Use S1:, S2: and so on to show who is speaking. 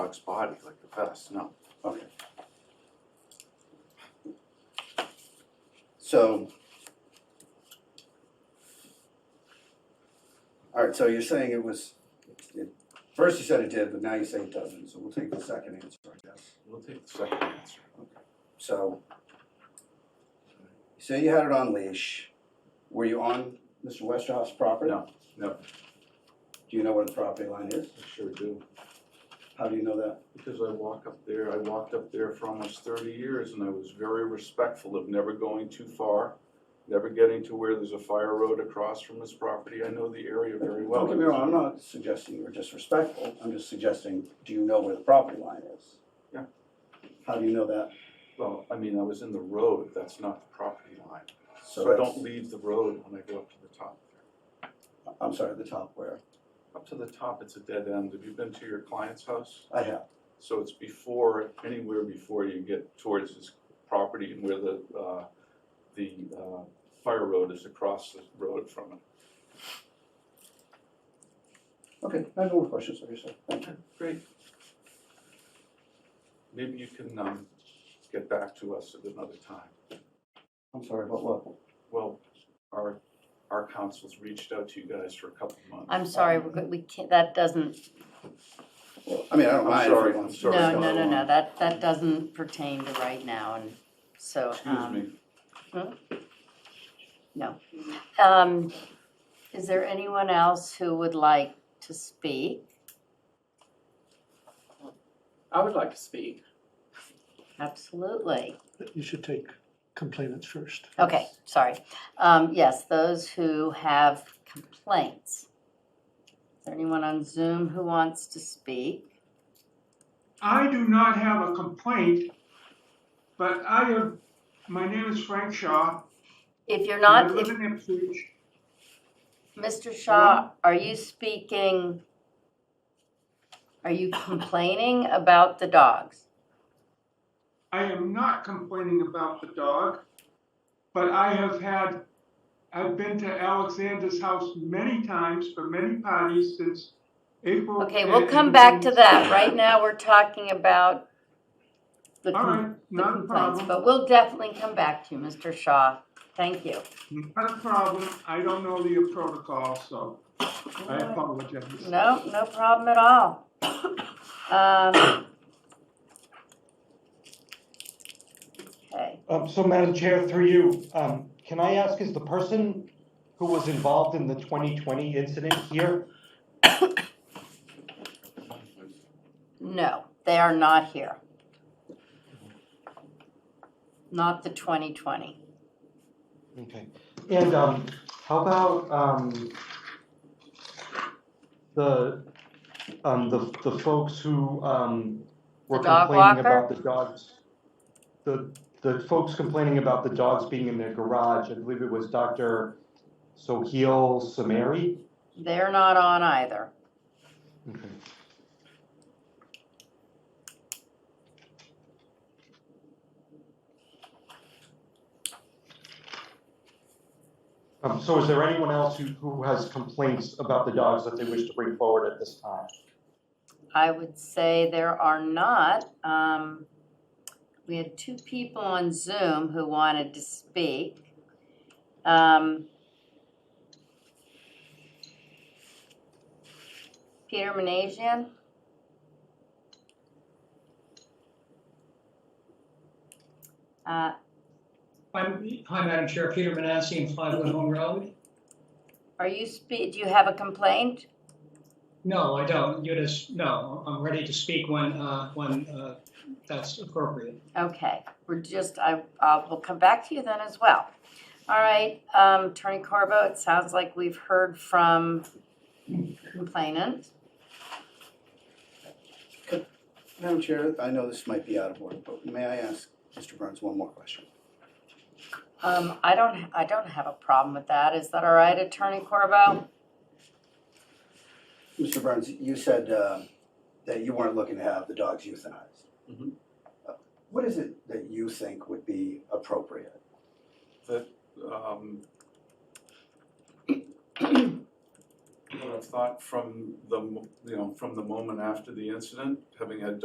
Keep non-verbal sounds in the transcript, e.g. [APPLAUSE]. S1: dog's body, like the vest, no.
S2: Okay. So. All right, so you're saying it was, it, first you said it did, but now you say it doesn't, so we'll take the second answer, I guess.
S1: We'll take the second answer.
S2: So. You say you had it on leash. Were you on Mr. Westhoff's property?
S1: No, no.
S2: Do you know where the property line is?
S1: I sure do,
S2: How do you know that?
S1: because I walk up there, I walked up there for almost thirty years and I was very respectful of never going too far, never getting to where there's a fire road across from this property. I know the area very well.
S2: Don't get me wrong, I'm not suggesting you were disrespectful, I'm just suggesting, do you know where the property line is?
S1: Yeah.
S2: How do you know that?
S1: Well, I mean, I was in the road, that's not the property line. So I
S2: that's-
S1: don't leave the road when I go up to the top.
S2: I'm sorry, the top where?
S1: Up to the top, it's a dead end. Have you been to your client's house?
S2: I have,
S1: So it's before, anywhere before you get towards his property and where the, uh, the, uh, fire road is across the road from it.
S2: okay, I have no more questions, sorry, sir, thank you.
S1: Great. Maybe you can, um, get back to us at another time.
S2: I'm sorry, but what?
S1: Well, our, our council's reached out to you guys for a couple of months.
S3: I'm sorry,
S1: Um,
S3: we're go- we can't, that doesn't,
S2: Well, I mean, I don't
S1: I'm
S2: mind if
S1: sorry,
S2: you want
S1: I'm
S2: to-
S1: sorry.
S3: no, no, no, no, that, that doesn't pertain to right now, and so,
S1: Excuse me.
S3: um, um, is there anyone else who would like to speak?
S4: I would like to speak.
S3: Absolutely.
S5: You should take complainants first.
S3: Okay, sorry. Um, yes, those who have complaints. Is there anyone on Zoom who wants to speak?
S6: I do not have a complaint, but I have, my name is Frank Shaw.
S3: If you're
S6: and I
S3: not,
S6: live
S3: if,
S6: in Ipswich.
S3: Mr. Shaw, are you speaking? Are you complaining about the dogs?
S6: I am not complaining about the dog, but I have had, I've been to Alexander's house many times for many parties since April.
S3: Okay, we'll
S6: and-
S3: come back to that. Right now, we're talking about the
S6: All
S3: com-
S6: right,
S3: the
S6: not a
S3: complaints,
S6: problem,
S3: but we'll definitely come back to you, Mr. Shaw. Thank you.
S6: not a problem. I don't know the protocol, so I apologize.
S3: No, no problem at all. Um, Okay,
S7: Um, so Madam Chair, through you, um, can I ask, is the person who was involved in the twenty twenty incident here?
S3: no, they are not here. Not the 2020.
S7: Okay, and, um, how about, um, the, um, the, the folks who, um, were
S3: The dog
S7: complaining
S3: walker?
S7: about the dogs? The, the folks complaining about the dogs being in their garage, I believe it was Dr. Soheil Samari?
S3: They're not on either.
S7: Okay. Um, so is there anyone else who, who has complaints about the dogs that they wish to bring forward at this time?
S3: I would say there are not. Um, we had two people on Zoom who wanted to speak. Um, Peter Manasian? Uh,
S8: Hi, hi, Madam Chair, Peter Manassi, Five Wood Home Road.
S3: are you spe- do you have a complaint?
S8: No, I don't, you just, no, I'm ready to speak when, uh, when uh, that's appropriate.
S3: Okay, we're just, I, uh, we'll come back to you then as well. All right, um, Attorney Corbo, it sounds like we've heard from complainant.
S2: Madam Chair, I know this might be out of order, but may I ask Mr. Burns one more question?
S3: Um, I don't, I don't have a problem with that. Is that all right, Attorney Corbo?
S2: Mr. Burns, you said um, that you weren't looking to have the dogs euthanized.
S1: Mhm.
S2: Uh, What is it that you think would be appropriate?
S1: that, um, [CLEARS THROAT] what I've thought from the, mo- you know, from the moment after the incident, having had